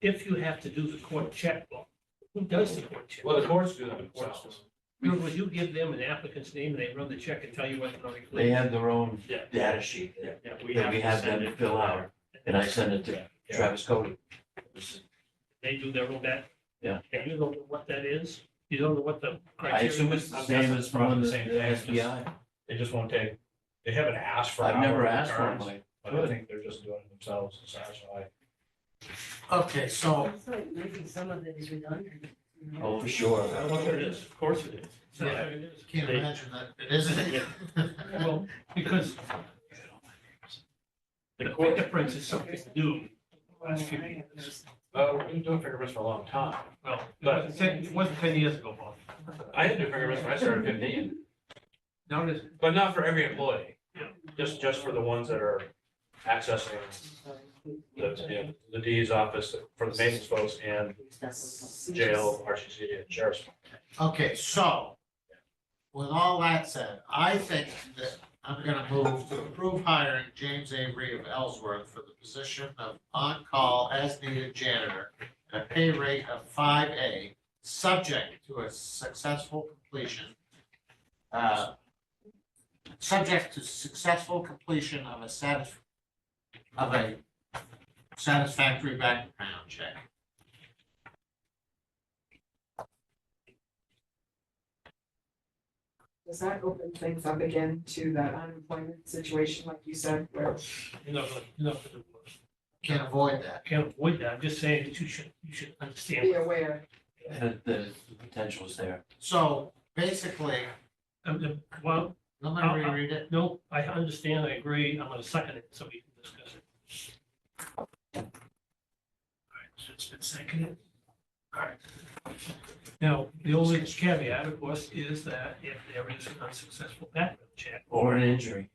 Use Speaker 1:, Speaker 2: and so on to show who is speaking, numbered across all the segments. Speaker 1: if you have to do the court checkbook, who does the court check?
Speaker 2: Well, the courts do that
Speaker 1: Courts do.
Speaker 2: themselves.
Speaker 1: In other words, you give them an applicant's name, and they run the check and tell you what the money.
Speaker 3: They have their own
Speaker 2: Yeah.
Speaker 3: data sheet
Speaker 2: Yeah,
Speaker 3: that
Speaker 2: yeah,
Speaker 3: we
Speaker 2: we have to
Speaker 3: have
Speaker 2: send
Speaker 3: them
Speaker 2: it.
Speaker 3: fill out, and I send it to Travis Cody.
Speaker 1: They do their own bet.
Speaker 3: Yeah.
Speaker 1: And you don't know what that is, you don't know what the
Speaker 3: I
Speaker 1: criteria
Speaker 3: assume
Speaker 1: is.
Speaker 3: it's the same as from the
Speaker 2: Same thing, it's just-
Speaker 3: FBI.
Speaker 2: They just won't take, they haven't asked for.
Speaker 3: I've
Speaker 2: our
Speaker 3: never asked for
Speaker 2: returns,
Speaker 3: mine.
Speaker 2: But I think they're just doing it themselves, it's actually.
Speaker 4: Okay,
Speaker 2: Oh.
Speaker 4: so,
Speaker 5: It's like maybe some of it is redundant. you know?
Speaker 3: Oh, for sure.
Speaker 1: I don't know what it is, of course it is. It's not
Speaker 4: Yeah.
Speaker 1: what it is.
Speaker 4: can't
Speaker 1: They-
Speaker 4: imagine that, it isn't.
Speaker 1: Well, because the fingerprints is something new.
Speaker 2: Oh,
Speaker 1: Last few years.
Speaker 2: Uh, we've been doing fingerprints for a long time.
Speaker 1: Well, it wasn't ten, it wasn't ten years ago, Bob.
Speaker 2: I had to do fingerprints when I started fifteen,
Speaker 1: Now it is.
Speaker 2: but not for every employee.
Speaker 1: Yeah.
Speaker 2: Just, just for the ones that are accessing the, you know, the D's office for the maintenance folks and jail, RCC, and sheriff's.
Speaker 4: Okay, so, with all that said, I think that I'm gonna move to approve hiring James Avery of Ellsworth for the position of on-call as needed janitor at a pay rate of five A, subject to a successful completion. uh, Subject to successful completion of a satis, of a satisfactory background check.
Speaker 6: Does that open things up again to that unemployment situation, like you said, where
Speaker 1: You're not gonna, you're not gonna,
Speaker 4: Can't avoid that.
Speaker 1: can't avoid that. I'm just saying that you should, you should understand.
Speaker 6: be aware?
Speaker 3: The, the potential is there.
Speaker 4: So basically,
Speaker 1: Um, um, Well,
Speaker 4: let me reread it.
Speaker 1: no, I understand, I agree. I'm gonna second it so we can discuss it. All right, so it's been seconded. All right. Now, the only caveat, of course, is that if there is an unsuccessful background check,
Speaker 3: Or an injury,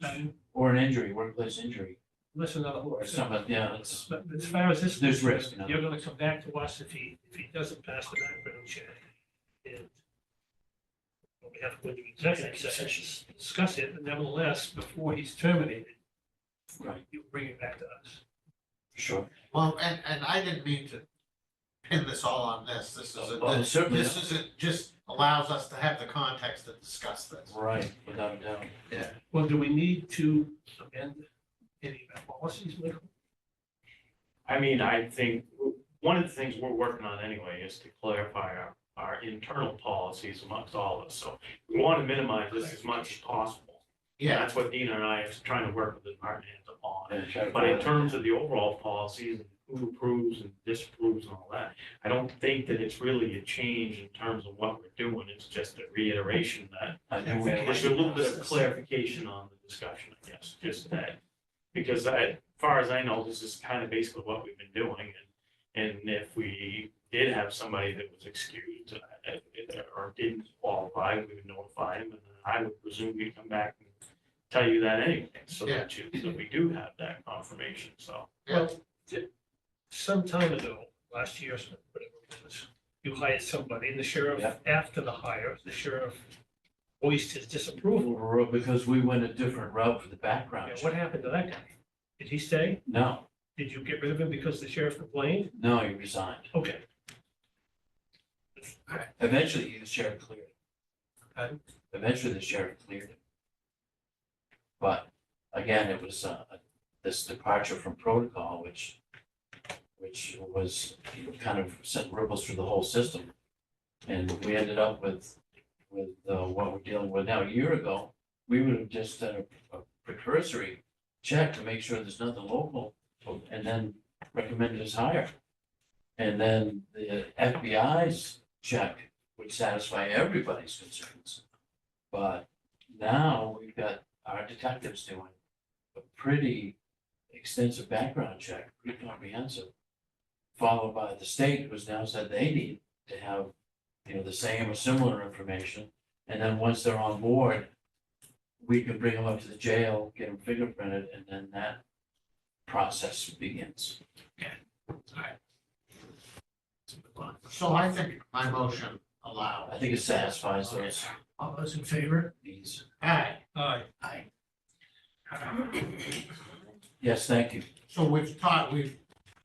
Speaker 1: then
Speaker 3: or an injury, workplace injury,
Speaker 1: listen to the
Speaker 3: or
Speaker 1: horse.
Speaker 3: some, of- yeah, it's,
Speaker 1: But as far as this.
Speaker 3: There's risk, you know.
Speaker 1: You're gonna come back to us if he, if he doesn't pass the background check. And we have to go into executive session, to discuss it, but nevertheless, before he's terminated,
Speaker 3: right,
Speaker 1: you bring it back to us.
Speaker 3: sure.
Speaker 4: Well, and, and I didn't mean to pin this all on this. This is,
Speaker 3: Well,
Speaker 4: a-
Speaker 3: certainly,
Speaker 4: this is, it just allows us to have the context to discuss this.
Speaker 3: right, without a doubt.
Speaker 1: Well, do we need to amend any of our policies, Michael?
Speaker 7: I mean, I think, w- one of the things we're working on anyway is to clarify our, our internal policies amongst all of us. So we want to minimize this as much as possible. And
Speaker 4: Yeah,
Speaker 7: That's what Dina and I are trying to work with the department heads upon.
Speaker 3: Yeah, sure.
Speaker 7: But in terms of the overall policies, and who approves and disapproves and all that, I don't think that it's really a change in terms of what we're doing. It's just a reiteration that
Speaker 3: I do
Speaker 7: there's a little bit of clarification on the discussion, I guess, just that. Because I, as far as I know, this is kind of basically what we've been doing, and, and if we did have somebody that was excused uh, or didn't qualify, we would notify them, and then I would presume you'd come back and tell you that anyway, so that you, that we do have that confirmation, so.
Speaker 4: yeah,
Speaker 1: Some time ago, last year, so whatever it was, you hired somebody, and the sheriff,
Speaker 3: Yeah.
Speaker 1: after the hire, the sheriff voiced his disapproval.
Speaker 3: Because we went a different route for the background.
Speaker 1: Yeah, What happened to that guy? Did he stay?
Speaker 3: No,
Speaker 1: Did you get rid of him because the sheriff complained?
Speaker 3: no, he resigned.
Speaker 1: Okay,
Speaker 3: Eventually, the sheriff cleared it.
Speaker 1: Okay.
Speaker 3: Eventually, the sheriff cleared it. But again, it was uh, this departure from protocol, which, which was you know, kind of sent ripples through the whole system. And we ended up with, with uh, what we're dealing with now. A year ago, we would have just done a a precursory check to make sure there's nothing local, and then recommended us higher. And then the FBI's check would satisfy everybody's concerns. But now we've got our detectives doing a pretty extensive background check, pretty comprehensive. Followed by the state, who's now said they need to have, you know, the same or similar information. And then once they're on board, we can bring them up to the jail, get them fingerprinted, and then that process begins.
Speaker 4: so I think my motion allowed.
Speaker 3: I think it satisfies those
Speaker 1: all those in favor?
Speaker 3: needs.
Speaker 4: Alright,
Speaker 1: Aye.
Speaker 3: Yes, thank you.
Speaker 4: so we've taught, we've